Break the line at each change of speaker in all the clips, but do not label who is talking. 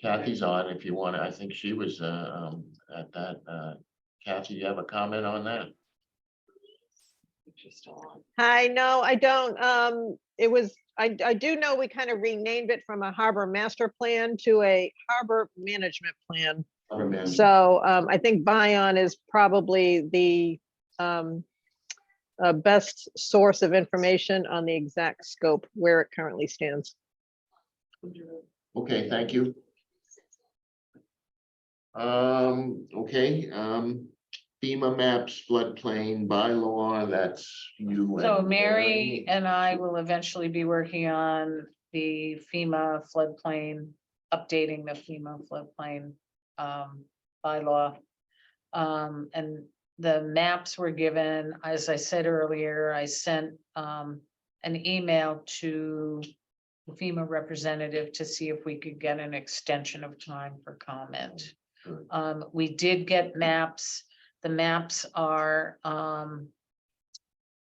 Kathy's on, if you want, to. I think she was, uh, um, at that, uh, Kathy, you have a comment on that?
Hi, no, I don't. Um, it was, I, I do know we kind of renamed it from a harbor master plan to a harbor management plan.
Harbor management.
So, um, I think Bion is probably the, um, uh, best source of information on the exact scope where it currently stands.
Okay, thank you. Um, okay, um, FEMA maps floodplain bylaw, that's you.
So
and
Mary and I will eventually be working on the FEMA floodplain, updating the FEMA floodplain um, bylaw. Um, and the maps were given, as I said earlier, I sent um, an email to the FEMA representative to see if we could get an extension of time for comment.
Good.
Um, we did get maps. The maps are um,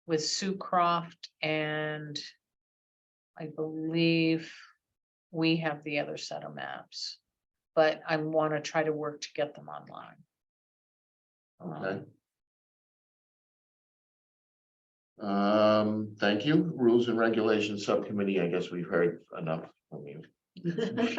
with Sue Croft and I believe we have the other set of maps. But I want to try to work to get them online.
Okay. Um, thank you. Rules and Regulations Subcommittee, I guess we've heard enough from you.
I do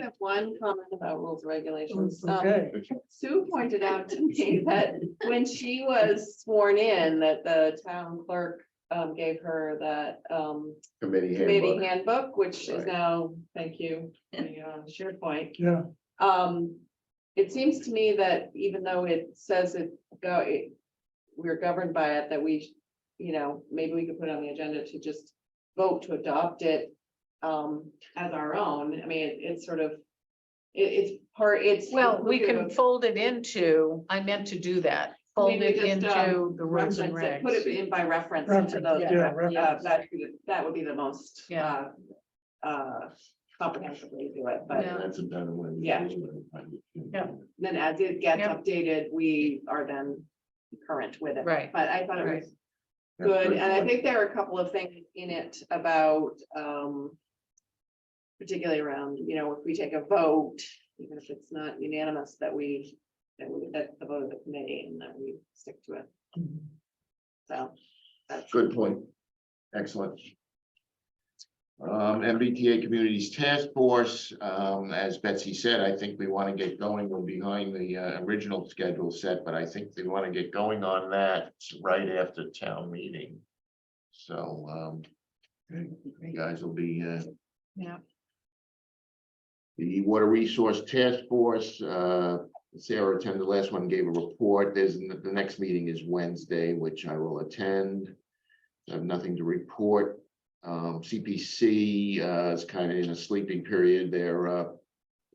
have one comment about rules and regulations.
Oh,
Um,
Okay.
Sue pointed out to me that when she was sworn in, that the town clerk um, gave her that um,
Committee
committee
handbook.
handbook, which is
Right.
now, thank you, the, uh, SharePoint.
Yeah,
Um, it seems to me that even though it says it go, it, we're governed by it, that we, sh- you know, maybe we could put on the agenda to just vote to adopt it um, as our own. I mean, it- it's sort of, it, it's part, it's.
Well, we can
inclusive of-
fold it into, I meant to do that, fold
Maybe
it
just,
into
um,
the rules and
reference it, Put it
regs.
in by reference to
Reference, yeah,
the, yeah,
reference.
that, that would be the most
Yeah.
uh, uh, comprehensive way to do it, but.
Yeah.
That's a better way. to
Yeah.
do it.
Yeah.
Then as it gets
Yep.
updated, we are then current with it.
Right.
But I thought it was
That's
good,
pretty
and I
good.
think there are a couple of things in it about, um. Particularly around, you know, if we take a vote, even if it's not unanimous, that we, that we, that the vote of the committee and that we stick to it,
Mm-hmm.
so. That's
Good point. Excellent. Um, MBTA Communities Task Force, um, as Betsy said, I think we want to get going. We're behind the uh, original schedule set, but I think we want to get going on that right after town meeting. So, um, you guys will be, uh,
Yeah.
the Water Resource Task Force, uh, Sarah attended the last one, gave a report. There's, n- the next meeting is Wednesday, which I will attend. I have nothing to report. Um, CPC, uh, is kind of in a sleeping period. Their, uh,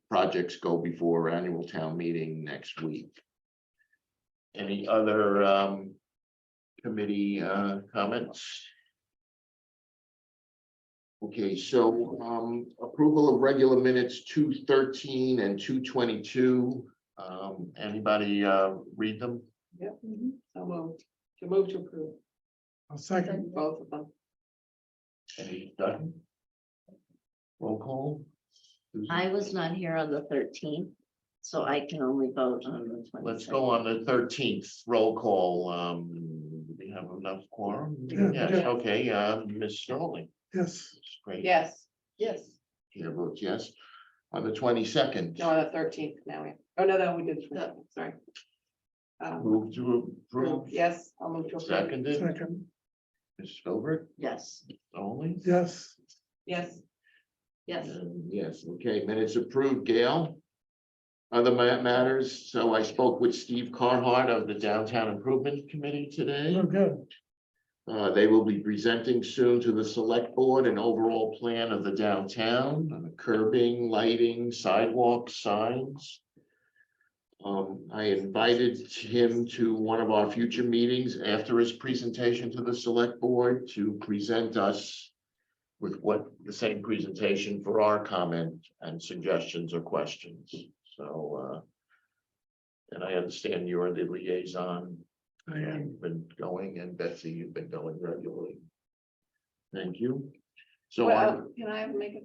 projects go before annual town meeting next week. Any other, um, committee, uh, comments? Okay, so um approval of regular minutes two thirteen and two twenty-two. Um, anybody uh read them?
Yep, so moved, to move to approve,
I'll second,
both of them,
Any done? Roll call? Susan?
I was not here on the thirteenth, so I can only vote on the twenty.
Let's go on the thirteenth roll call. Um, do we have enough quorum?
Yeah.
Yes, okay, uh, Ms. Sterling.
yes,
Great.
yes, yes,
Chair votes yes. On the twenty-second,
no, on the thirteenth now, we- oh, no, no, we did, sorry. Um,
move to approve,
Yes, I'll move to approve.
seconded,
second,
Ms. Filbert
Yes,
only.
yes,
Yes. Yes.
Um, Yes, okay, minutes approved, Gail. Other ma- matters, so I spoke with Steve Carhart of the Downtown Improvement Committee today.
we're good.
Uh, they will be presenting soon to the select board an overall plan of the downtown, uh, curbing, lighting, sidewalks, signs. Um, I invited him to one of our future meetings after his presentation to the select board to present us with what, the same presentation for our comment and suggestions or questions, so, uh, and I understand you are the liaison
I am.
I've been going and Betsy, you've been going regularly. Thank you. So
Well,
on,
can I make a